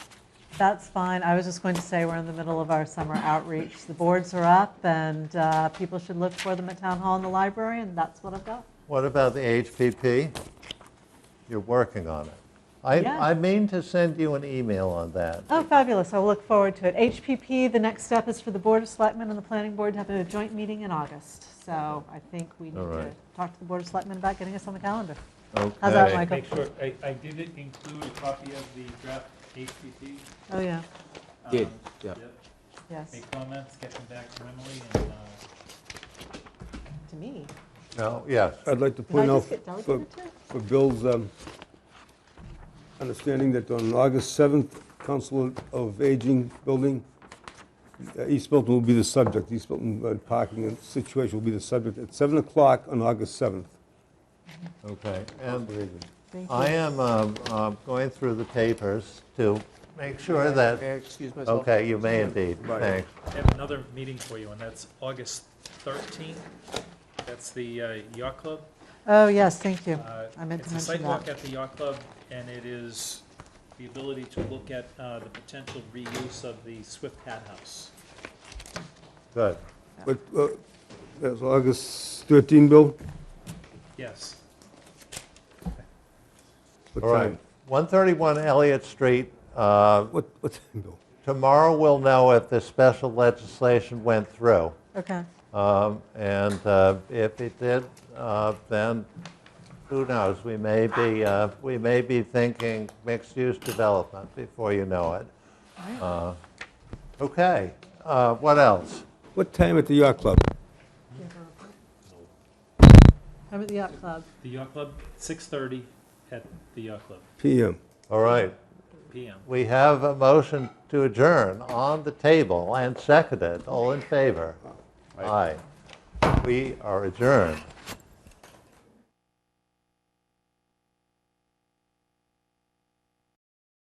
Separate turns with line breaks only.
That's fine. I was just going to say, we're in the middle of our summer outreach. The boards are up, and uh, people should look for them at Town Hall and the library, and that's what I've got.
What about the HPP? You're working on it. I,
Yeah.
I mean to send you an email on that.
Oh, fabulous. I'll look forward to it. HPP, the next step is for the Board of Selectmen and the Planning Board to have a joint meeting in August. So I think we need
All
to
right.
talk to the Board of Selectmen about getting us on the calendar.
Okay.
How's that, Michael?
Make sure, I, I did include a copy of the draft HPP.
Oh, yeah,
Did,
Um,
yeah.
yes,
Make comments, get them back to Emily, and, uh,
to me.
No, yes.
I'd like to
Did I
point out
just get
for,
delegated to?
for Bill's um, understanding that on August 7th, Council of Aging Building, uh, East Milton will be the subject, East Milton uh, parking and situation will be the subject at 7 o'clock on August 7th.
Okay. And
Thank you.
I am um, um, going through the papers to make sure
May I
that,
excuse myself?
okay, you may indeed.
Right.
Thanks.
I have another meeting for you, and that's August 13th. That's the uh, yacht club.
Oh, yes, thank you.
Uh,
I meant to
It's a
mention
sidewalk
that.
at the yacht club, and it is the ability to look at uh, the potential reuse of the Swift Hat House.
Good.
But uh, that's August 13, Bill?
Yes.
What
All right.
time?
131 Elliott Street. uh,
What, what time, Bill?
Tomorrow we'll know if the special legislation went through.
Okay,
Um, And uh, if it did, uh, then who knows? We may be, uh, we may be thinking mixed-use development before you know it. Uh, Okay, Uh, what else?
What time at the yacht club?
I'm at the yacht club.
The yacht club, 6:30 at the yacht club,
PM.
All right,
PM.
we have a motion to adjourn on the table and seconded. All in favor? Aye. We are adjourned.